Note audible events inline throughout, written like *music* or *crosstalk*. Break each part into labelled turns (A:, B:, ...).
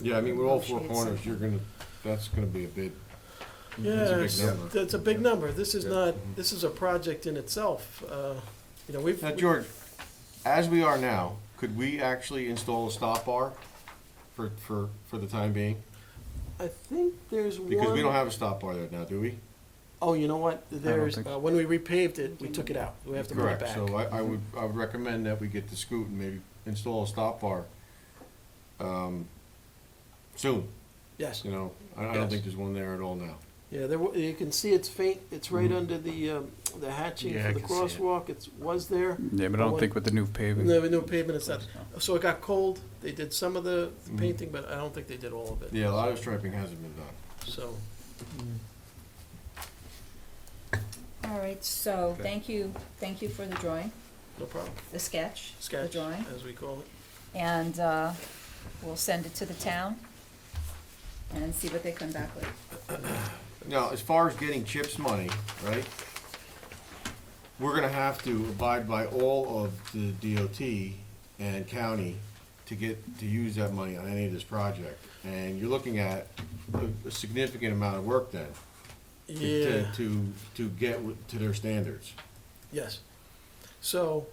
A: Yeah, I mean, with all four
B: Negotiate
A: corners,
B: something.
A: you're gonna, that's gonna be a big, that's a
C: Yeah,
A: big
C: it's-
A: number.
C: that's a big number. This is
A: Yeah.
C: not, this is a project in itself. Uh, You know, we've.
A: Now, George, as we are now, could we actually install a stop bar for, for, for the time being?
C: I think there's one.
A: Because we don't have a stop bar there now, do we?
C: Oh, you know what? There's,
D: think so.
C: uh, when we repaved it, we took it out. We have to put it
A: Correct,
C: back.
A: so I, I would, I would recommend that we get to scoot and maybe install a stop bar, um, soon,
C: Yes.
A: you know? I, I don't
C: Yes.
A: think there's one there at all now.
C: Yeah, there, wa- you can see it's faint. It's right under the, um, the hatching
A: Mm-hmm. Yeah, I
C: for the
A: can see it.
C: crosswalk. It's, was there.
D: Yeah, but I don't think with the new
A: Mm-hmm.
D: paving.
C: No, no pavement is that. So it got cold. They did some of the the painting, but I don't think they did all of it.
A: Mm-hmm. Yeah, a lot of striping hasn't been done.
C: So,
B: All right, so, thank you, thank you for the drawing,
C: no problem.
B: the sketch, the
C: Sketch,
B: drawing.
C: as we call it.
B: And uh, we'll send it to the town and see what they come back with.
A: Now, as far as getting CHIPS money, right? We're gonna have to abide by all of the DOT and county to get, to use that money on any of this project. And you're looking at a- a significant amount of work then. to- to-
C: Yeah.
A: To, to get wi- to their standards.
C: Yes. So,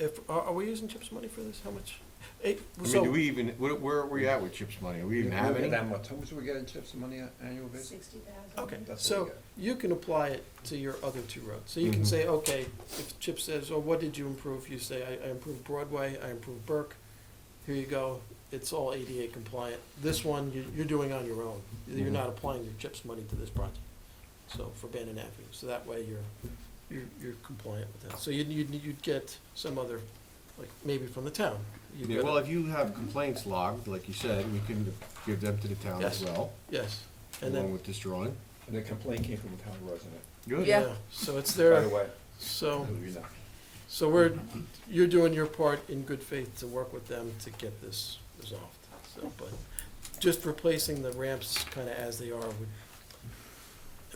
C: if, are, are we using CHIPS money for this? How much? It,
A: I mean, do
C: so,
A: we even, where, where are we at with CHIPS money? Are we even have any?
E: That much, how much do we get in chips and money on an annual basis?
F: Sixty thousand.
C: okay,
E: That's what
C: so
E: we got.
C: you can apply it to your other two roads. So you can
A: Mhm.
C: say, okay, if CHIPS says, oh, what did you improve? You say, I, I improved Broadway, I improved Burke. Here you go. It's all ADA compliant. This one, you, you're doing on your own. You're
A: Mhm.
C: not applying your CHIPS money to this project. So, for Bannon Avenue. So that way you're, you're, you're compliant with that. So you'd, you'd, you'd get some other, like, maybe from the town. You'd
A: Yeah,
C: get
A: well,
C: a-
A: if you have complaints logged, like you said, we can give them to the town as
C: Yes.
A: well,
C: Yes, and
A: along
C: then,
A: with this drawing.
E: And the complaint came from a town resident,
A: Good.
B: Yeah.
C: yeah, so it's
E: by
C: there,
E: the way.
C: so,
E: you know.
C: so we're, you're doing your part in good faith to work with them to get this resolved, so, but just replacing the ramps kinda as they are would.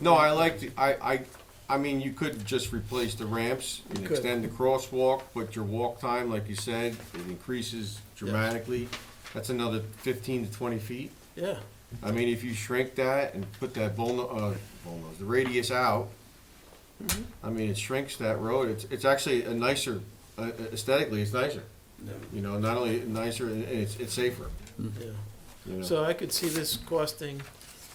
A: No, I like, the- I, I, I mean, you could just replace the ramps and
C: You could.
A: extend the crosswalk, but your walk time, like you said, it increases dramatically. That's another fifteen to twenty feet.
C: Yeah,
A: I mean, if you shrink that and put that bulno, uh, bulno, the radius out,
C: Mm-hmm.
A: I mean, it shrinks that road. It's, it's actually a nicer, uh, aesthetically, it's nicer. You know, not only nicer, and it's, it's safer,
C: yeah.
A: you know?
C: So I could see this costing,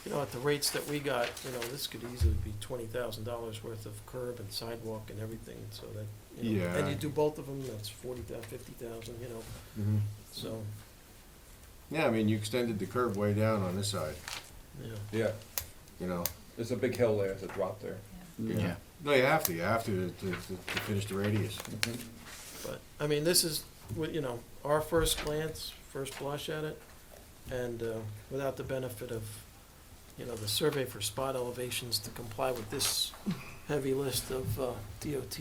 C: you know, at the rates that we got, you know, this could easily be twenty thousand dollars worth of curb and sidewalk and everything, so that, you know, and
A: Yeah.
C: you do both of them, that's forty thousand, fifty thousand, you know,
A: Mhm.
C: so,
A: Yeah, I mean, you extended the curb way down on this side,
C: yeah.
E: Yeah,
A: you know?
E: there's a big hill there, there's a drop there.
A: Yeah. No, you have to, you have to, to, to to finish the radius.
E: Mm-hmm.
C: But, I mean, this is, w- you know, our first glance, first blush at it, and uh, without the benefit of, you know, the survey for spot elevations to comply with this heavy list of uh, DOT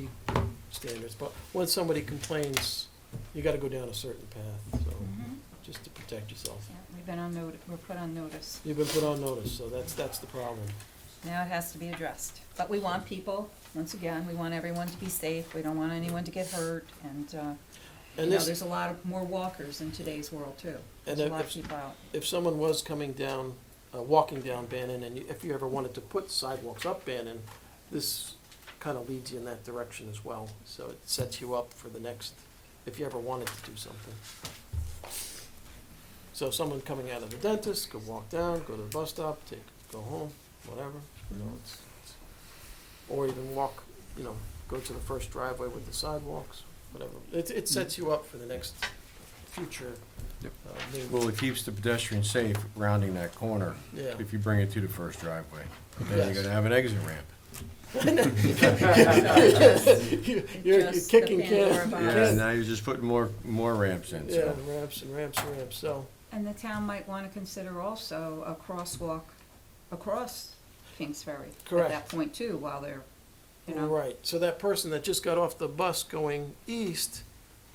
C: standards. But when somebody complains, you gotta go down a certain path, so,
B: Mhm.
C: just to protect yourself.
B: Yeah, We've been on notice, we're put on notice.
C: You've been put on notice, so that's, that's the problem.
B: Now it has to be addressed. But we want people, once again, we want everyone to be safe. We don't want anyone to get hurt. And, uh, you
C: And
B: know,
C: this-
B: there's a lot of more walkers in today's world, too.
C: And
B: There's a
C: if-
B: lot of
C: if-
B: people out.
C: if someone was coming down, uh, walking down Bannon, and you- if you ever wanted to put sidewalks up Bannon, this kind of leads you in that direction as well. So it sets you up for the next, if you ever wanted to do something. So someone coming out of the dentist could walk down, go to the bus stop, take, go home, whatever, you know, it's, it's- or even walk, you know, go to the first driveway with the sidewalks, whatever. It, it sets you up for the next future,
D: Yep.
C: uh, new-
A: Well, it keeps the pedestrian safe rounding that corner
C: yeah.
A: if you bring it to the first driveway. Then
C: Yes.
A: you're gonna have an exit ramp.
C: *laughs* You're you're
B: Just the
C: kicking
B: Pandora
C: can.
B: box.
A: Yeah, now you're just putting more, more ramps in,
C: Yeah,
A: so.
C: ramps and ramps and ramps, so,
B: And the town might want to consider also a crosswalk across Kings Ferry. At
C: Correct.
B: that point, too, while they're, you know.
C: right, so that person that just got off the bus going east,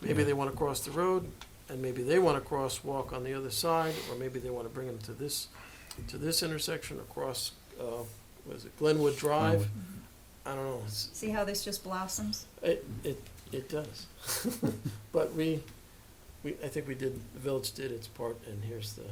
C: maybe they wanna cross the road, and maybe they wanna crosswalk on the other side, or maybe they wanna bring them to this, to this intersection across, uh, what is it, Glenwood Drive? I don't know, it's,
B: See how this just blossoms?
C: It, it, it does. *laughs* But we, we, I think we did, the village did its part, and here's the,